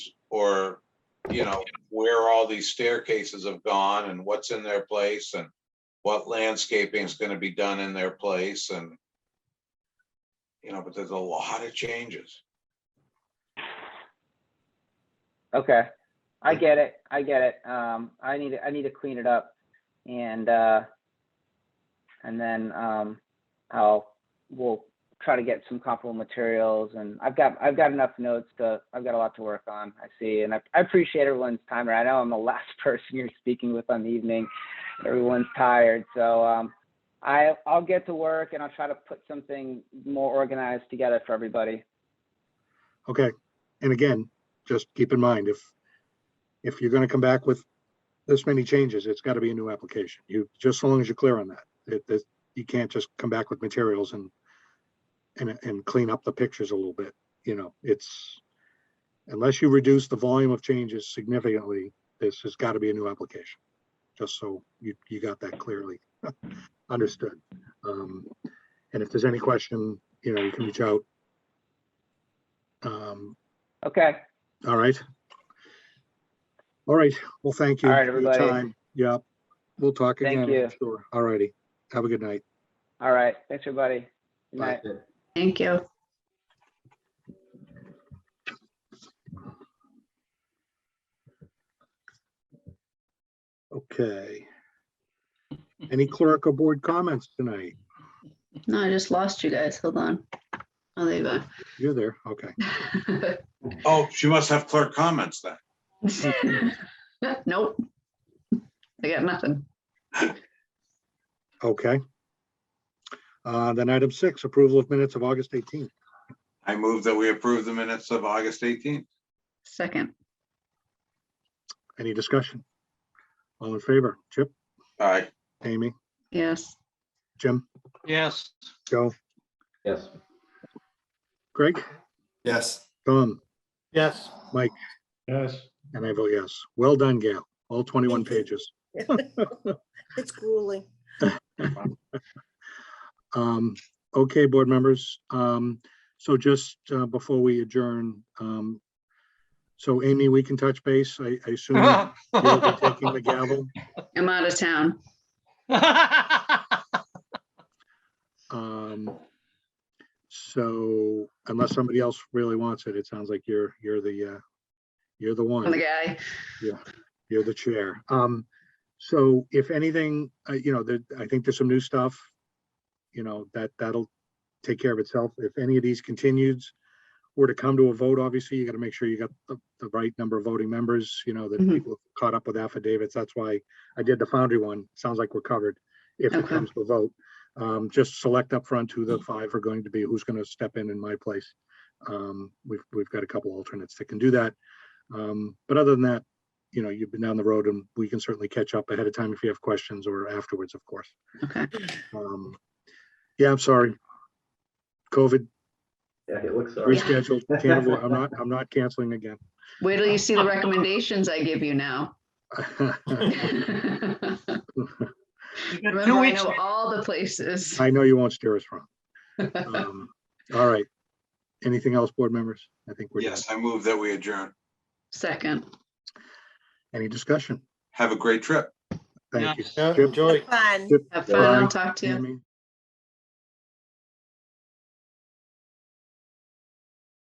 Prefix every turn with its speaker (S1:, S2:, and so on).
S1: or, you know, where all these staircases have gone and what's in their place and what landscaping is gonna be done in their place and you know, but there's a lot of changes.
S2: Okay, I get it, I get it. Um, I need, to I need to clean it up and, uh, and then, um, I'll, we'll try to get some comparable materials and I've got, I've got enough notes to, I've got a lot to work on, I see. And I, I appreciate everyone's time. I know I'm the last person you're speaking with on the evening. Everyone's tired, so, um, I, I'll get to work and I'll try to put something more organized together for everybody.
S3: Okay, and again, just keep in mind, if, if you're gonna come back with this many changes, it's gotta be a new application. You, just so long as you're clear on that, it, that, you can't just come back with materials and, and, and clean up the pictures a little bit, you know, it's, unless you reduce the volume of changes significantly, this has gotta be a new application. Just so you, you got that clearly understood. Um, and if there's any question, you know, you can reach out. Um,
S2: Okay,
S3: all right. All right, well, thank you.
S2: All right,
S3: for your
S2: everybody.
S3: time. Yeah, we'll talk
S2: Thank
S3: again.
S2: you.
S3: I'm Sure, all righty. Have a good night.
S2: all right, thanks, everybody. Good
S3: Bye.
S2: night.
S4: Thank you.
S3: Okay. Any clerical board comments tonight?
S4: No, I just lost you guys. Hold on. Oh, there you
S3: You're there, okay.
S4: go.
S1: Oh, she must have clerk comments then.
S4: Nope. I got nothing.
S3: Okay. Uh, then item six, approval of minutes of August 18th.
S1: I move that we approve the minutes of August eighteenth.
S4: Second.
S3: Any discussion? All in favor? Chip,
S1: All right.
S3: Amy,
S4: Yes.
S3: Jim,
S1: Yes.
S3: Joe,
S5: Yes.
S3: Greg,
S6: Yes.
S3: Tom,
S5: Yes.
S3: Mike.
S5: Yes.
S3: and I vote yes. Well done, Gail. All 21
S7: Thank you.
S3: pages.
S7: It's grueling.
S3: Um, okay, board members, um, so just, uh, before we adjourn, um, so Amy, we can touch base, I, I assume you'll be taking the gavel.
S4: I'm out of town.
S3: Um, so unless somebody else really wants it, it sounds like you're, you're the, uh, you're the
S4: I'm the
S3: one,
S4: guy.
S3: you're the chair. Um, so if anything, uh, you know, there, I think there's some new stuff, you know, that, that'll take care of itself. If any of these continues, were to come to a vote, obviously, you gotta make sure you got the, the right number of voting members, you know, that
S4: Mhm.
S3: people have caught up with affidavits. That's why I did the foundry one. Sounds like we're covered if it
S4: Okay.
S3: comes to a vote. Um, just select up front who the five are going to be, who's gonna step in in my place. Um, we've, we've got a couple alternates that can do that. Um, but other than that, you know, you've been down the road and we can certainly catch up ahead of time if you have questions or afterwards, of course.
S4: Okay.
S3: Um, yeah, I'm sorry. COVID
S5: Yeah, it looks all right.
S3: rescheduled, can't avoid, I'm not, I'm not canceling again.
S4: Wait till you see the recommendations I give you now. Remember, I know all the places.
S3: I know you won't steer us wrong. Um, All right. Anything else, board members? I think we're done.
S1: Yes, I move that we adjourn.
S4: Second.
S3: Any discussion?
S1: Have a great trip.
S3: Thank you.
S5: Yeah,
S3: Chip,
S5: enjoy.
S7: Fun.
S3: Chip,
S4: Have fun. I'll
S3: Bye.
S4: talk to you.
S3: Tammy,